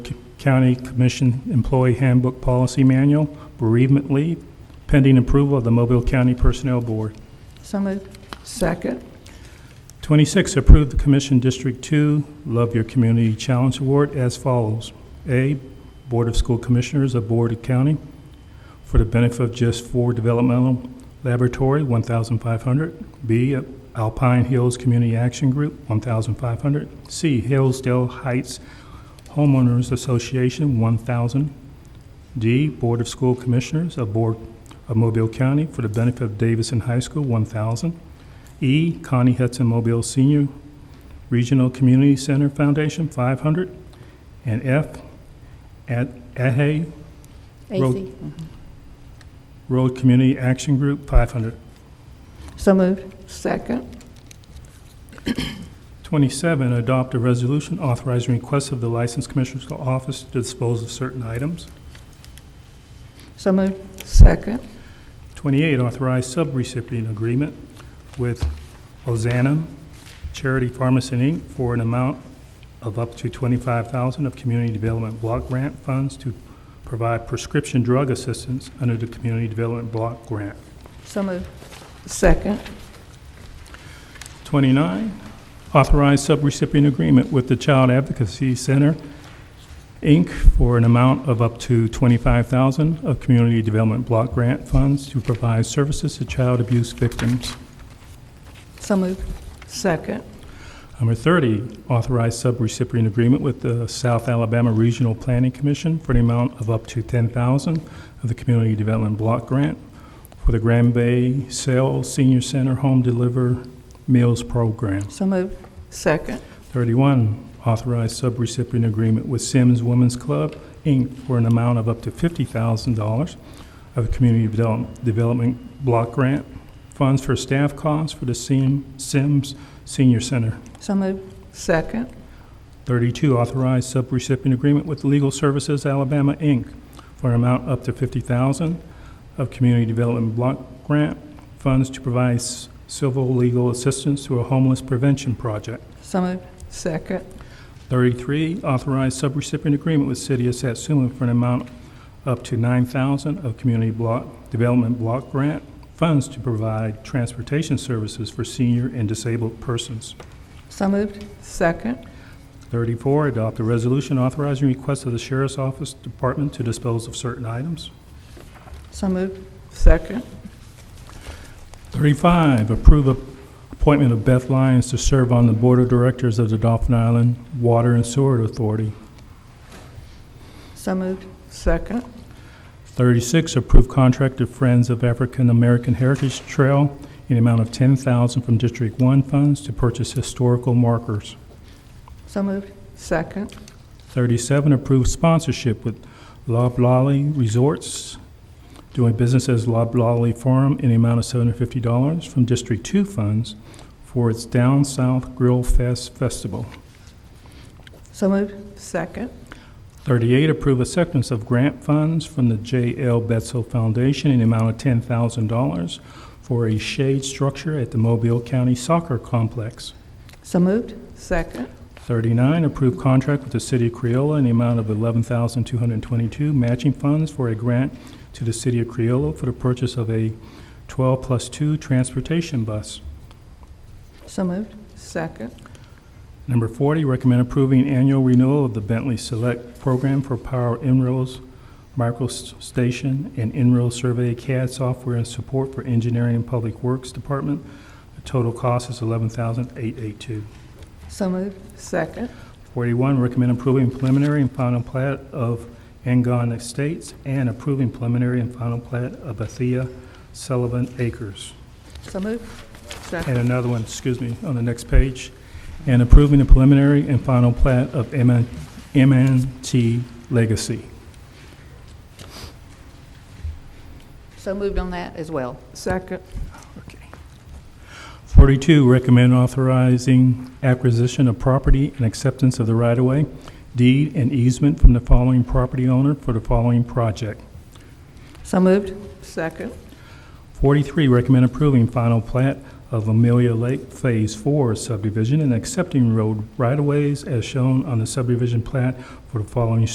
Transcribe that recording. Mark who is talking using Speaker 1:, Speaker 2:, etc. Speaker 1: County Commission Employee Handbook Policy Manual, bereavement leave, pending approval of the Mobile County Personnel Board.
Speaker 2: So moved.
Speaker 3: Second.
Speaker 1: 26, approve the Commission District 2 Love Your Community Challenge Award as follows. A, Board of School Commissioners of Board of County, for the benefit of Just for Developmental Laboratory, 1,500. B, Alpine Hills Community Action Group, 1,500. C, Hillsdale Heights Homeowners Association, 1,000. D, Board of School Commissioners of Board of Mobile County, for the benefit of Davidson High School, 1,000. E, Connie Hudson Mobile Senior Regional Community Center Foundation, 500. And F, at Ahe
Speaker 2: AC.
Speaker 1: Road Community Action Group, 500.
Speaker 2: So moved.
Speaker 3: Second.
Speaker 1: 27, adopt a resolution authorizing requests of the License Commissioner's Office to dispose of certain items.
Speaker 2: So moved.
Speaker 3: Second.
Speaker 1: 28, authorize subrecipient agreement with Ozanam Charity Pharmacy, Inc. for an amount of up to 25000 of Community Development Block Grant funds to provide prescription drug assistance under the Community Development Block Grant.
Speaker 2: So moved.
Speaker 3: Second.
Speaker 1: 29, authorize subrecipient agreement with the Child Advocacy Center, Inc., for an amount of up to 25000 of Community Development Block Grant funds to provide services to child abuse victims.
Speaker 2: So moved.
Speaker 3: Second.
Speaker 1: Number 30, authorize subrecipient agreement with the South Alabama Regional Planning Commission for the amount of up to 10000 of the Community Development Block Grant for the Grand Bay Cell Senior Center Home Deliver Meals Program.
Speaker 2: So moved.
Speaker 3: Second.
Speaker 1: 31, authorize subrecipient agreement with Sims Women's Club, Inc., for an amount of up to $50,000 of the Community Develop- Development Block Grant funds for staff costs for the Sim- Sims Senior Center.
Speaker 2: So moved.
Speaker 3: Second.
Speaker 1: 32, authorize subrecipient agreement with Legal Services Alabama, Inc., for an amount up to 50000 of Community Development Block Grant funds to provide s- civil legal assistance to a homeless prevention project.
Speaker 2: So moved.
Speaker 3: Second.
Speaker 1: 33, authorize subrecipient agreement with City of Satsuma for an amount up to 9000 of Community Block, Development Block Grant funds to provide transportation services for senior and disabled persons.
Speaker 2: So moved.
Speaker 3: Second.
Speaker 1: 34, adopt a resolution authorizing request of the Sheriff's Office Department to dispose of certain items.
Speaker 2: So moved.
Speaker 3: Second.
Speaker 1: 35, approve a- appointment of Beth Lyons to serve on the Board of Directors of the Dolphin Island Water and Sewer Authority.
Speaker 2: So moved.
Speaker 3: Second.
Speaker 1: 36, approve contract to Friends of African American Heritage Trail in the amount of 10000 from District 1 funds to purchase historical markers.
Speaker 2: So moved.
Speaker 3: Second.
Speaker 1: 37, approve sponsorship with Loblolly Resorts, doing business as Loblolly Farm in the amount of $750 from District 2 funds for its Down South Grill Fest Festival.
Speaker 2: So moved.
Speaker 3: Second.
Speaker 1: 38, approve acceptance of grant funds from the J.L. Betzel Foundation in the amount of $10,000 for a shade structure at the Mobile County Soccer Complex.
Speaker 2: So moved.
Speaker 3: Second.
Speaker 1: 39, approve contract with the City of Creola in the amount of $11,222 matching funds for a grant to the City of Creola for the purchase of a 12 plus 2 transportation bus.
Speaker 2: So moved.
Speaker 3: Second.
Speaker 1: Number 40, recommend approving annual renewal of the Bentley Select Program for Power Enrolls Micro s- Station and Enroll Survey CAD software and support for Engineering and Public Works Department. The total cost is $11,882.
Speaker 2: So moved.
Speaker 3: Second.
Speaker 1: 41, recommend approving preliminary and final plat of Angon Estates and approving preliminary and final plat of Bethia Sullivan Acres.
Speaker 2: So moved.
Speaker 1: And another one, excuse me, on the next page. And approving the preliminary and final plat of MN MNT Legacy.
Speaker 2: So moved on that as well.
Speaker 3: Second.
Speaker 1: Okay. 42, recommend authorizing acquisition of property and acceptance of the right-of-way, deed, and easement from the following property owner for the following project.
Speaker 2: So moved.
Speaker 3: Second.
Speaker 1: 43, recommend approving final plat of Amelia Lake Phase 4 subdivision and accepting road right-of-ways as shown on the subdivision plat for the following